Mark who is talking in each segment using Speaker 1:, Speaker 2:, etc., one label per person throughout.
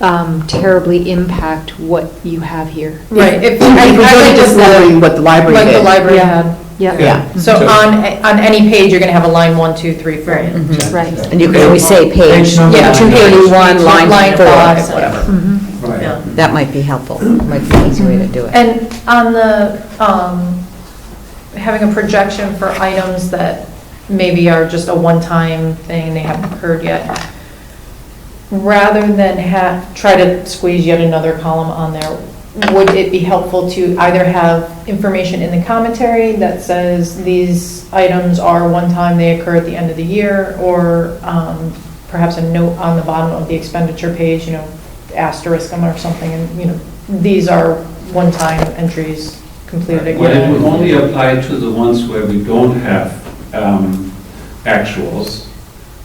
Speaker 1: um, terribly impact what you have here.
Speaker 2: Right, if,
Speaker 3: I
Speaker 2: I
Speaker 3: was really
Speaker 2: think
Speaker 3: just wondering what the library
Speaker 2: Like the
Speaker 3: did.
Speaker 2: library had.
Speaker 1: Yeah,
Speaker 3: Yeah,
Speaker 2: So on, on any page, you're gonna have a line one, two, three, four.
Speaker 1: right.
Speaker 4: And you can always say page
Speaker 2: Yeah.
Speaker 4: 231, line
Speaker 2: Line five,
Speaker 4: four.
Speaker 2: whatever.
Speaker 1: Mm-hmm.
Speaker 2: Yeah.
Speaker 4: That might be helpful, might be an easy way to do it.
Speaker 2: And on the, um, having a projection for items that maybe are just a one-time thing, they haven't occurred yet, rather than have, try to squeeze yet another column on there, would it be helpful to either have information in the commentary that says these items are one-time, they occur at the end of the year, or um, perhaps a note on the bottom of the expenditure page, you know, asterisk them or something, and, you know, these are one-time entries completed again?
Speaker 5: Well, it would only apply to the ones where we don't have um, actuals.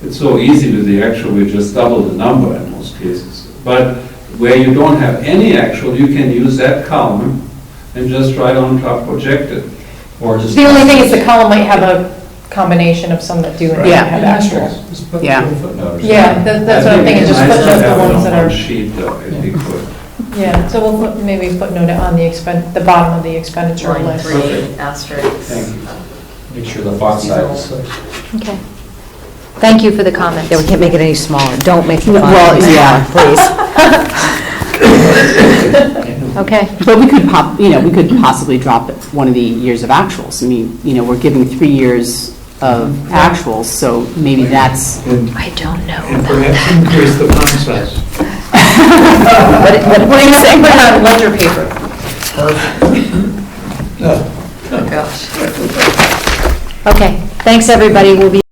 Speaker 5: It's so easy with the actual, we just double the number in most cases. But where you don't have any actual, you can use that column and just write on top projected. Or just.
Speaker 2: The only thing is the column might have a combination of some that do and
Speaker 5: Right.
Speaker 2: don't have
Speaker 5: And
Speaker 2: actual.
Speaker 5: Just put
Speaker 3: Yeah.
Speaker 5: little footnotes.
Speaker 2: Yeah, that- that's
Speaker 5: I
Speaker 2: what I'm
Speaker 5: think
Speaker 2: thinking,
Speaker 5: it's
Speaker 2: just
Speaker 5: nice to
Speaker 2: footnote the
Speaker 5: have it
Speaker 2: ones
Speaker 5: on
Speaker 2: that
Speaker 5: one
Speaker 2: are-
Speaker 5: Sheet though, if we could.
Speaker 2: Yeah, so we'll put, maybe footnote it on the expen, the bottom of the expenditure
Speaker 6: Line
Speaker 2: list.
Speaker 6: three, asterisk.
Speaker 5: Thank you.
Speaker 7: Make sure the font size is
Speaker 1: Okay. Thank you for the comments.
Speaker 4: Yeah, we can't make it any smaller, don't make the font
Speaker 3: Well,
Speaker 4: any
Speaker 3: yeah.
Speaker 4: smaller, please.
Speaker 1: Okay,
Speaker 3: but we could pop, you know, we could possibly drop it one of the years of actuals. I mean, you know, we're giving three years of actuals, so maybe that's,
Speaker 1: I don't know.
Speaker 8: And perhaps increase the font size.
Speaker 4: What what- what do you say?
Speaker 2: Put it on ledger paper.
Speaker 6: Oh, gosh.
Speaker 4: Oh,
Speaker 1: Okay, thanks, everybody. We'll be